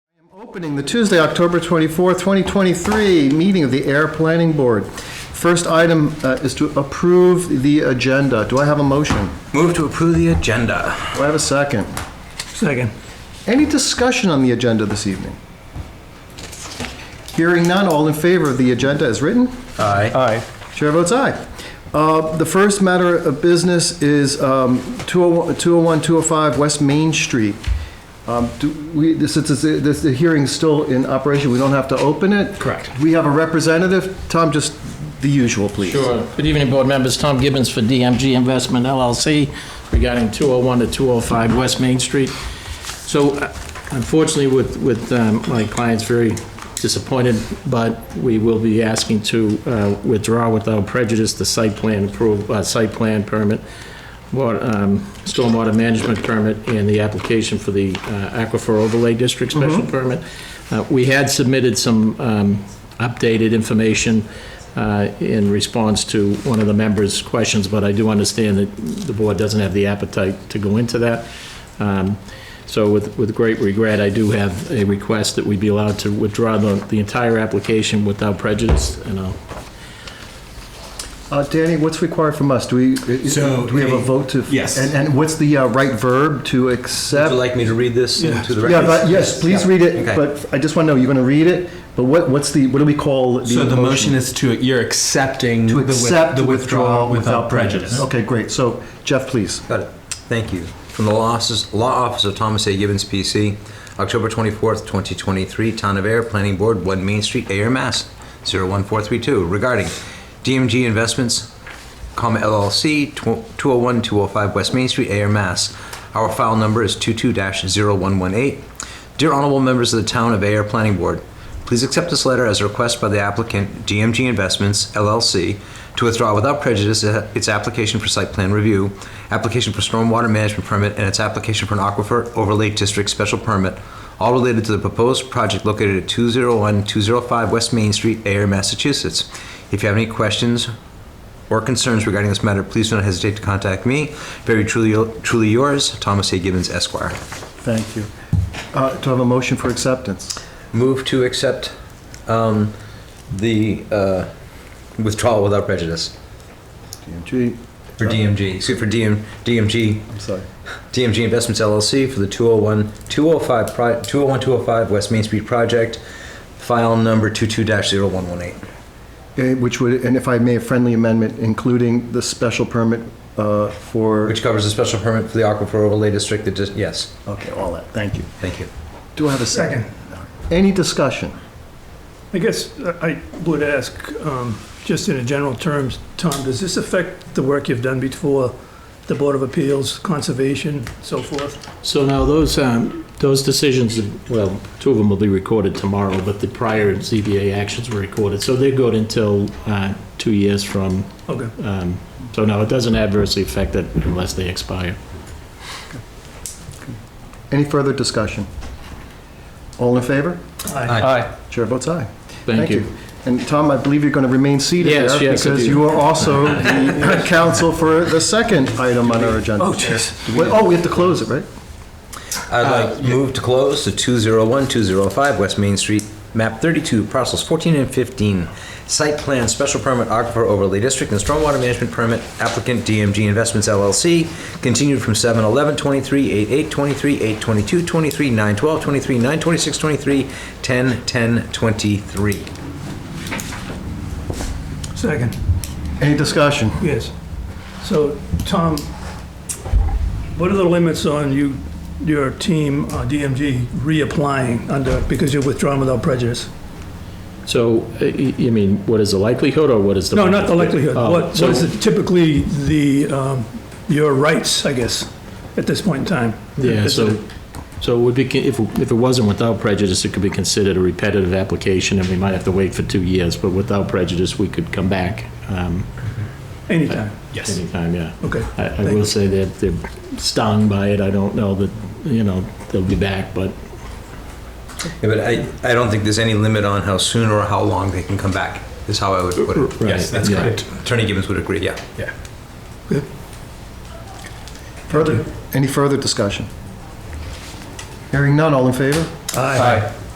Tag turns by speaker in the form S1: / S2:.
S1: Opening the Tuesday, October 24th, 2023, meeting of the Air Planning Board. First item uh, is to approve the agenda. Do I have a motion?
S2: Move to approve the agenda.
S1: Do I have a second?
S2: Second.
S1: Any discussion on the agenda this evening? Hearing none, all in favor of the agenda as written?
S2: Aye.
S1: Aye. Chair votes aye. Uh, The first matter of business is um, 201, 201, 205 West Main Street. Um, do we- this- Since it's- this- the hearing's still in operation, we don't have to open it?
S2: Correct.
S1: We have a representative. Tom, just the usual, please.
S3: Sure. Good evening, board members. Tom Gibbons for DMG Investment LLC regarding 201 to 205 West Main Street. So uh, unfortunately, with, with um, my client's very disappointed, but we will be asking to uh, withdraw without prejudice the site plan approval, uh, site plan permit, water, um, stormwater management permit, and the application for the uh, aquifer overlay district special permit. Uh, We had submitted some um, updated information uh, in response to one of the members' questions, but I do understand that the board doesn't have the appetite to go into that. Um, So with, with great regret, I do have a request that we be allowed to withdraw the, the entire application without prejudice, and I'll
S1: Uh, Danny, what's required from us? Do we, do
S4: So,
S1: we have a
S4: a-
S1: vote to?
S4: yes.
S1: And and what's the uh, right verb to
S2: Would you
S1: accept?
S2: like me to read this into the record?
S1: Yeah, but yes, please
S2: Yeah.
S1: read it,
S2: Okay.
S1: but I just want to know, you're going to read it, but what, what's the, what do we call the
S4: So the motion is to, you're accepting
S1: to
S4: the with-
S1: accept
S4: the withdrawal without prejudice.
S1: Okay, great. So Jeff, please.
S2: Got it. Thank you. From the Law Offices- Law Office of Thomas A. Gibbons, PC, October 24th, 2023, Town of Air, Planning Board, 1 Main Street, Air, Mass. 01432, regarding DMG Investments, comma LLC, 201-205 West Main Street, Air, Mass. Our file number is 22-0118. Dear Honorable Members of the Town of Air Planning Board, Please accept this letter as a request by the applicant, DMG Investments LLC, to withdraw without prejudice its application for site plan review, application for stormwater management permit, and its application for an aquifer overlay district special permit, all related to the proposed project located at 201-205 West Main Street, Ayer, Massachusetts. If you have any questions or concerns regarding this matter, please do not hesitate to contact me. Very truly truly yours, Thomas A. Gibbons Esquire.
S1: Thank you. Uh, Do I have a motion for acceptance?
S2: Move to accept um, the uh, withdrawal without prejudice
S1: DMG,
S2: for DMG, excuse for DM, DMG,
S1: I'm sorry.
S2: DMG Investments LLC for the 201, 205, pro- 201, 205 West Main Street project, file number 22-0118.
S1: Uh, Which would, and if I may, a friendly amendment, including the special permit uh, for,
S2: Which covers a special permit for the Aquifer Overlay District that just, yes,
S1: okay, all that. Thank you.
S2: thank you.
S1: Do I have a second?
S5: Second.
S1: Any discussion?
S5: I guess I I would ask, um, just in a general terms, Tom, does this affect the work you've done before, the Board of Appeals, Conservation, so forth?
S3: So now those, um, those decisions, well, two of them will be recorded tomorrow, but the prior ZBA actions were recorded. So they're good until, uh, two years from,
S5: Okay,
S3: um, so no, it doesn't adversely affect it unless they expire.
S1: Any further discussion? All in favor?
S5: aye.
S2: Aye.
S1: Chair votes aye.
S3: Thank you.
S1: And Tom, I believe you're going to remain seated
S3: Yes,
S1: there
S3: yes, I
S1: because
S3: do.
S1: you are also the counsel for the second item on our agenda. Oh, jeez. Oh, we have to close it, right?
S2: I'd like to move to close the 201-205 West Main Street, map 32, parcels 14 and 15. Site plan, special permit, aquifer overlay district, and stormwater management permit, applicant DMG Investments LLC, continued from 7/11/23, 8/8/23, 8/22/23, 9/12/23, 9/26/23, 10/10/23.
S5: Second,
S1: Any discussion?
S5: yes. So, Tom, what are the limits on you, your team, uh, DMG, reapplying under, because you're withdrawn without prejudice?
S3: So, uh, y- you mean, what is the likelihood or what is the?
S5: No, not the likelihood.
S3: Oh,
S5: What
S3: so-
S5: what is it typically the, um, your rights, I guess, at this point in time?
S3: Yeah,
S5: Is it-
S3: so, so it would be, if, if it wasn't without prejudice, it could be considered a repetitive application, and we might have to wait for two years, but without prejudice, we could come back um,
S5: Anytime,
S4: Yes.
S3: anytime, yeah.
S5: okay.
S3: I, I will say that they're stung by it, I don't know that, you know, they'll be back, but
S2: Yeah, but I, I don't think there's any limit on how soon or how long they can come back, is how I would put it.
S3: Right,
S4: Yes, that's
S3: yeah.
S4: correct.
S2: Attorney Gibbons would agree, yeah.
S4: Yeah.
S1: Further, any further discussion? Hearing none, all in favor?
S5: Aye.